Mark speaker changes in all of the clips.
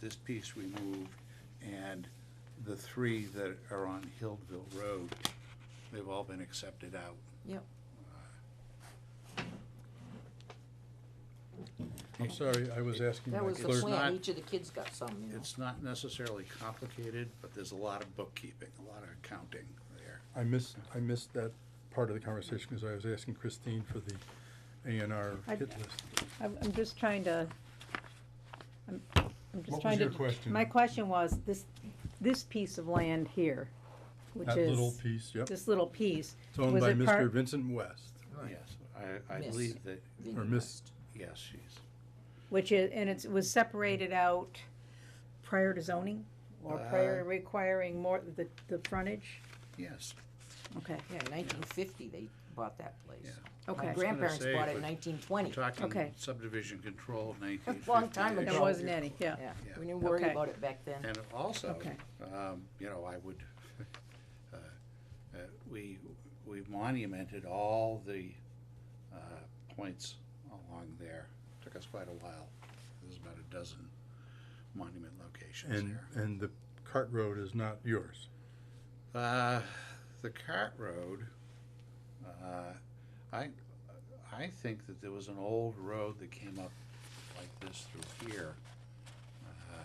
Speaker 1: this piece removed, and the three that are on Hillville Road, they've all been accepted out.
Speaker 2: Yep.
Speaker 3: I'm sorry, I was asking
Speaker 2: That
Speaker 3: my
Speaker 2: was the
Speaker 3: clerk.
Speaker 2: plan,
Speaker 1: not-
Speaker 2: each of the kids got some, you know.
Speaker 1: It's not necessarily complicated, but there's a lot of bookkeeping, a lot of accounting there.
Speaker 3: I missed, I missed that part of the conversation because I was asking Christine for the A and R
Speaker 4: I-
Speaker 3: hit list.
Speaker 4: I'm, I'm just trying to, I'm, I'm
Speaker 3: What was
Speaker 4: just trying to.
Speaker 3: your question?
Speaker 4: My question was, this, this piece of land here, which
Speaker 3: That little
Speaker 4: is,
Speaker 3: piece, yep.
Speaker 4: this little piece.
Speaker 3: It's owned
Speaker 4: was
Speaker 3: by
Speaker 4: it
Speaker 3: Mr.
Speaker 4: part-
Speaker 3: Vincent West.
Speaker 1: Yes, I, I
Speaker 2: Miss.
Speaker 1: believe that,
Speaker 2: Then
Speaker 3: Or
Speaker 2: you
Speaker 3: missed.
Speaker 2: must.
Speaker 1: yes, she's,
Speaker 4: Which is, and it's, was separated out prior to zoning? Or prior
Speaker 1: Uh,
Speaker 4: to requiring more, the, the frontage?
Speaker 1: yes.
Speaker 4: Okay,
Speaker 2: Yeah, nineteen fifty, they bought that place.
Speaker 1: Yeah.
Speaker 4: okay.
Speaker 2: My grandparents
Speaker 1: say,
Speaker 2: bought it
Speaker 1: but
Speaker 2: in nineteen twenty.
Speaker 1: Talking
Speaker 4: Okay.
Speaker 1: subdivision control nineteen fifty.
Speaker 2: Long time ago.
Speaker 4: There wasn't any, yeah.
Speaker 2: Yeah,
Speaker 1: Yeah.
Speaker 2: we didn't worry
Speaker 4: Okay.
Speaker 2: about it back then.
Speaker 1: And also,
Speaker 4: Okay.
Speaker 1: um, you know, I would, uh, uh, we, we monumented all the, uh, points along there. Took us quite a while. There's about a dozen monument locations
Speaker 3: And,
Speaker 1: there.
Speaker 3: and the cart road is not yours.
Speaker 1: Uh, the cart road, uh, I, I think that there was an old road that came up like this through here. Uh,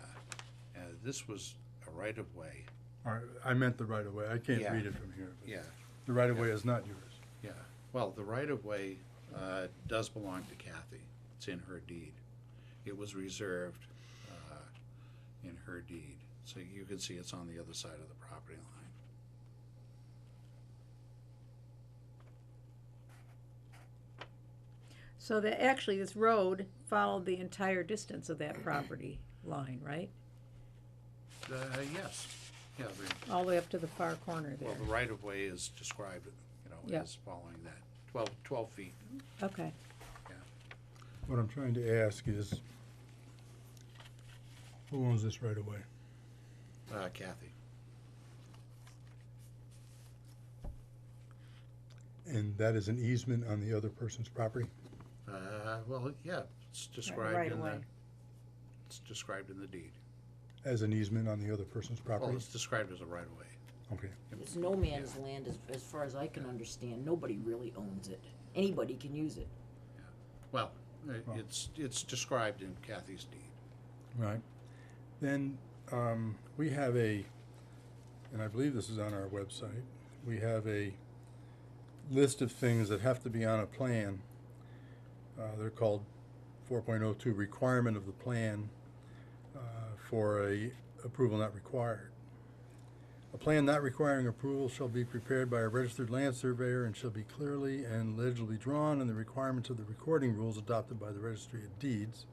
Speaker 1: And this was a right-of-way,
Speaker 3: Or, I meant the right of way. I can't
Speaker 1: Yeah.
Speaker 3: read it from here. but
Speaker 1: yeah.
Speaker 3: The right of way is not yours.
Speaker 1: Yeah, well, the right-of-way uh, does belong to Kathy. It's in her deed. It was reserved uh, in her deed. So you can see it's on the other side of the property line.
Speaker 4: So that, actually, this road followed the entire distance of that property line, right?
Speaker 1: Uh, Yes, yeah, the-
Speaker 4: All the way up to the far corner
Speaker 1: well,
Speaker 4: there.
Speaker 1: the right-of-way is described, you know,
Speaker 4: Yeah.
Speaker 1: as following that, 12, 12 feet.
Speaker 4: Okay,
Speaker 3: What I'm trying to ask is, who owns this right of way?
Speaker 1: Uh, Kathy,
Speaker 3: And that is an easement on the other person's property?
Speaker 1: Uh, well, yeah, it's described in the,
Speaker 4: right-of-way.
Speaker 1: it's described in the deed.
Speaker 3: As an easement on the other person's
Speaker 1: Well,
Speaker 3: property?
Speaker 1: it's described as a right-of-way.
Speaker 3: Okay.
Speaker 2: It's no man's land as, as far as I can understand. Nobody really owns it. Anybody can use it.
Speaker 1: Well, uh, it's, it's described in Kathy's deed.
Speaker 3: Right. Then, um, we have a, and I believe this is on our website, we have a list of things that have to be on a plan. Uh, they're called four point oh two requirement of the plan, uh, for a approval not required. A plan not requiring approval shall be prepared by a registered land surveyor and shall be clearly and legibly drawn in the requirements of the recording rules adopted by the registry of deeds.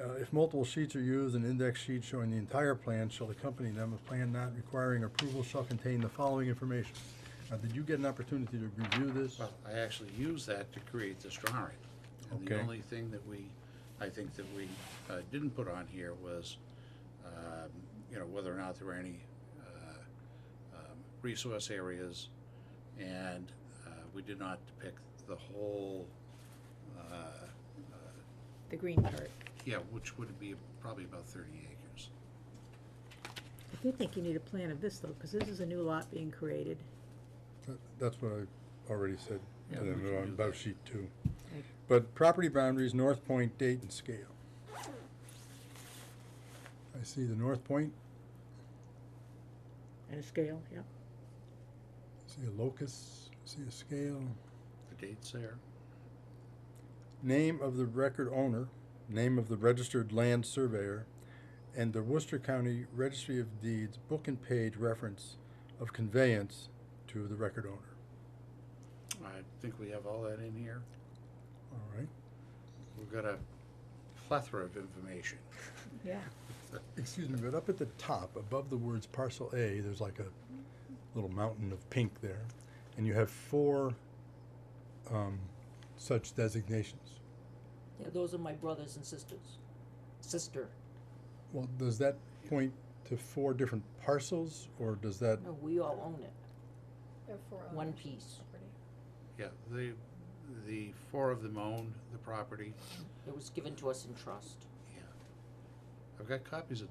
Speaker 3: Uh, If multiple sheets are used, an index sheet showing the entire plan shall accompany them. A plan not requiring approval shall contain the following information. Now, did you get an opportunity to review this?
Speaker 1: Well, I actually used that to create this drawing. And the
Speaker 3: Okay.
Speaker 1: only thing that we, I think that we uh, didn't put on here was, um, you know, whether or not there were any uh, um, resource areas. And uh, we did not depict the whole, uh,
Speaker 4: the green part.
Speaker 1: yeah, which would be probably about 30 acres.
Speaker 4: I do think you need a plan of this though, because this is a new lot being created.
Speaker 3: Th- That's what I already said to
Speaker 1: Yeah,
Speaker 3: them
Speaker 1: we can
Speaker 3: on
Speaker 1: do
Speaker 3: about
Speaker 1: that.
Speaker 3: sheet two.
Speaker 4: Okay.
Speaker 3: But property boundaries, north point, date, and scale. I see the north point,
Speaker 4: And a scale, yeah.
Speaker 3: I see a locus, I see a scale.
Speaker 1: The date's there.
Speaker 3: name of the record owner, name of the registered land surveyor, and the Worcester County Registry of Deeds book and page reference of conveyance to the record owner.
Speaker 1: I think we have all that in here.
Speaker 3: All right,
Speaker 1: We've got a plethora of information.
Speaker 4: Yeah.
Speaker 3: excuse me, but up at the top, above the words parcel A, there's like a little mountain of pink there, and you have four um, such designations.
Speaker 2: Yeah, those are my brothers and sisters. Sister.
Speaker 3: Well, does that point to four different parcels, or does that,
Speaker 2: No, we all own it. One piece.
Speaker 1: Yeah, the, the four of them owned the property.
Speaker 2: It was given to us in trust.
Speaker 1: Yeah. I've got copies of